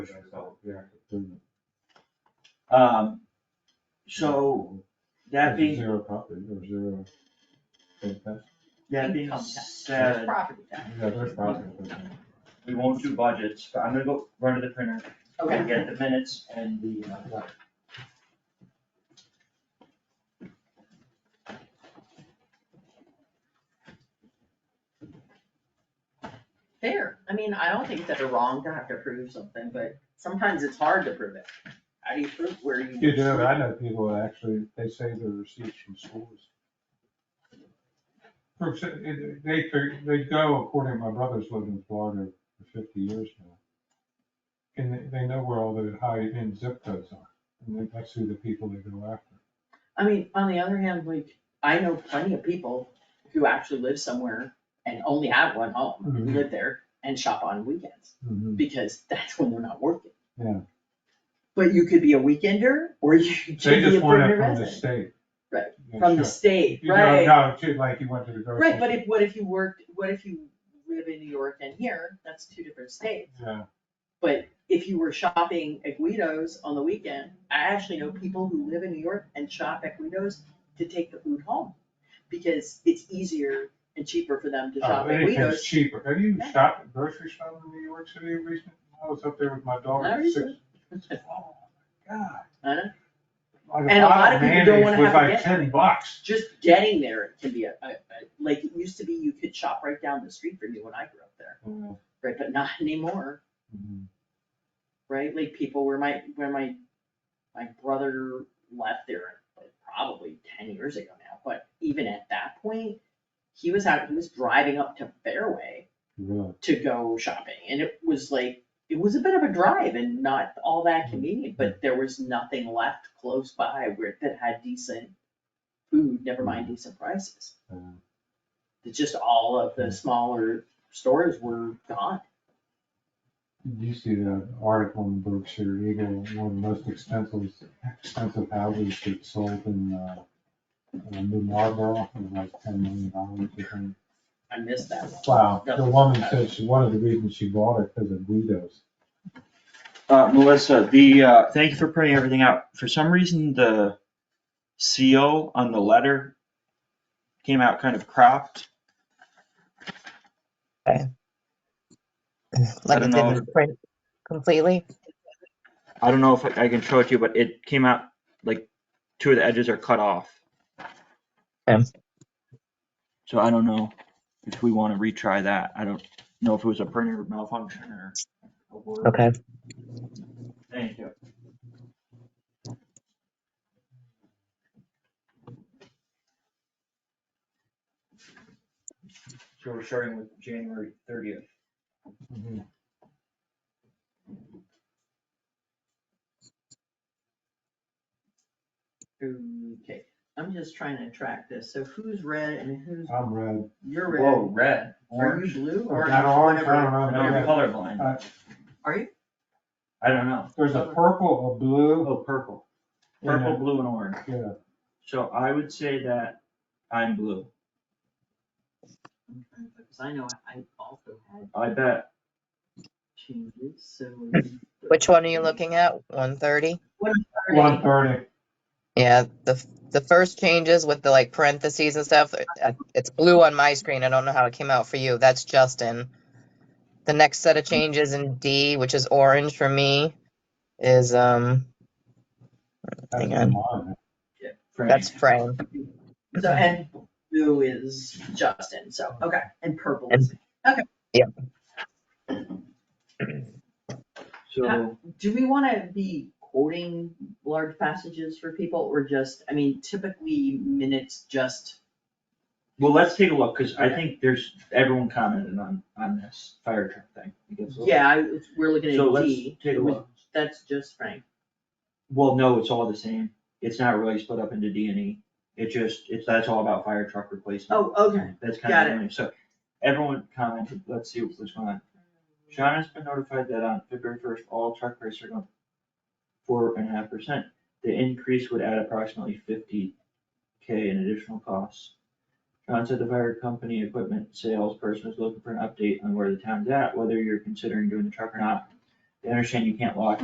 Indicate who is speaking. Speaker 1: Um, so that being,
Speaker 2: Zero property or zero. impact.
Speaker 1: that being
Speaker 3: Income tax.
Speaker 1: said,
Speaker 3: Property tax.
Speaker 2: Yeah, there's property, but-
Speaker 1: we won't do budgets, but I'm gonna go run to the printer.
Speaker 3: Okay.
Speaker 1: and Get the minutes and the, uh,
Speaker 3: Fair, I mean, I don't think it's ever wrong to have to prove something, but sometimes it's hard to prove it. How do you prove where you?
Speaker 2: You do, but I know people that actually, they save their receipts from schools. For exa- it- They, fig- they go according, my brother's lived in Florida for fifty years now. And they, they know where all the high-end zip codes are, and they- that's who the people they go after.
Speaker 3: I mean, on the other hand, like, I know plenty of people who actually live somewhere and only have one home,
Speaker 2: Mhm.
Speaker 3: live there and shop on weekends, because that's when they're not working.
Speaker 2: Yeah.
Speaker 3: But you could be a weekender, or you could be
Speaker 2: They
Speaker 3: a
Speaker 2: just want it
Speaker 3: permanent
Speaker 2: from the
Speaker 3: resident,
Speaker 2: state.
Speaker 3: Right,
Speaker 2: Yeah,
Speaker 3: from the
Speaker 2: sure.
Speaker 3: state,
Speaker 2: You know,
Speaker 3: right?
Speaker 2: No, too, like you went to the grocery.
Speaker 3: Right, but if, what if you worked, what if you live in New York and here, that's two different states.
Speaker 2: store. Yeah,
Speaker 3: If you were shopping at Guido's on the weekend, I actually know people who live in New York and shop at Guido's to take the food home. Because it's easier and cheaper for them to
Speaker 2: Uh,
Speaker 3: shop at
Speaker 2: anything's
Speaker 3: Guido's.
Speaker 2: cheaper. Have you
Speaker 3: Yeah.
Speaker 2: shopped at grocery shop in New York City recently? I was up there with my daughter.
Speaker 3: Not
Speaker 2: at six-
Speaker 3: recently.
Speaker 2: Oh, my God.
Speaker 3: I know.
Speaker 2: Like
Speaker 3: And a lot
Speaker 2: bottle
Speaker 3: of people don't
Speaker 2: mayonnaise
Speaker 3: wanna have
Speaker 2: Was
Speaker 3: to
Speaker 2: like
Speaker 3: get
Speaker 2: ten bucks.
Speaker 3: Just getting there can be a, a, a- like, it used to be you could shop right down the street from you when I grew up there, right, but not anymore.
Speaker 2: Mm-hmm.
Speaker 3: right? Like people where my, where my, my brother left there like probably ten years ago now, but even at that point, he was out, he was driving up to Fairway
Speaker 2: Really?
Speaker 3: to go shopping and it was like, it was a bit of a drive and not all that convenient, but there was nothing left close by where, that had decent food, never mind decent prices.
Speaker 2: Mm.
Speaker 3: It's just all of the smaller stores were gone.
Speaker 2: Did you see that article in Berkshire Eagle, one of the most expensive, expensive houses that sold in, uh, uh, New Marlboro, it was like ten million dollars, I think.
Speaker 3: I missed that one.
Speaker 2: Wow, the woman said she, one of the reasons she bought it because of Guido's.
Speaker 1: uh, Melissa, the, uh, thank you for printing everything out. For some reason, the seal on the letter came out kind of cropped.
Speaker 4: Like
Speaker 1: don't
Speaker 4: it
Speaker 1: know
Speaker 4: didn't print completely.
Speaker 1: I don't know if I can show it to you, but it came out like two of the edges are cut off.
Speaker 4: Okay.
Speaker 1: So I don't know if we want to retry that. I don't know if it was a printer malfunction or. a word.
Speaker 4: Okay.
Speaker 1: Thank you. So we're starting with January thirtieth.
Speaker 2: Mm-hmm.
Speaker 3: Okay, I'm just trying to track this, so who's red and who's,
Speaker 2: I'm red.
Speaker 3: you're
Speaker 1: Whoa,
Speaker 3: red,
Speaker 1: red.
Speaker 3: are you blue,
Speaker 2: Or
Speaker 3: or
Speaker 2: not orange, I
Speaker 3: whatever?
Speaker 2: don't know.
Speaker 1: I know you're colorblind.
Speaker 2: Uh,
Speaker 3: Are you?
Speaker 1: I don't know.
Speaker 2: There's a purple, a blue.
Speaker 1: Oh, purple.
Speaker 2: and a-
Speaker 1: Purple, blue and orange.
Speaker 2: Yeah,
Speaker 1: So I would say that I'm blue.
Speaker 3: Because I know I I also had
Speaker 1: I bet.
Speaker 3: changes, so.
Speaker 4: Which one are you looking at? One thirty?
Speaker 2: one thirty.
Speaker 4: Yeah, the f- the first changes with the like parentheses and stuff. it- uh, It's blue on my screen. I don't know how it came out for you. That's Justin. The next set of changes in D, which is orange for me, is um
Speaker 2: That's
Speaker 4: Hang on.
Speaker 2: mine.
Speaker 1: Frank.
Speaker 4: that's Fran.
Speaker 3: So, and blue is Justin, so, okay, and purple is,
Speaker 1: So
Speaker 3: do we wanna be quoting large passages for people, or just, I mean, typically minutes just,
Speaker 1: well, let's take a look because I think there's everyone commented on on this fire truck thing. It gets a little-
Speaker 3: yeah, I, we're looking
Speaker 1: So
Speaker 3: at
Speaker 1: let's
Speaker 3: D.
Speaker 1: take a
Speaker 3: which-
Speaker 1: look.
Speaker 3: That's just Frank.
Speaker 1: Well, no, it's all the same. It's not really split up into D and E. It just it's that's all about fire truck replacement.
Speaker 3: Oh, okay.
Speaker 1: That's
Speaker 3: got
Speaker 1: kind
Speaker 3: it.
Speaker 1: of lame. So everyone commented. Let's see what's going on. Sean has been notified that on February first, all truck prices are going four and a half percent. The increase would add approximately fifty K in additional costs. Sean said the fire company equipment salesperson is looking for an update on where the town's at, whether you're considering doing the truck or not. They understand you can't lock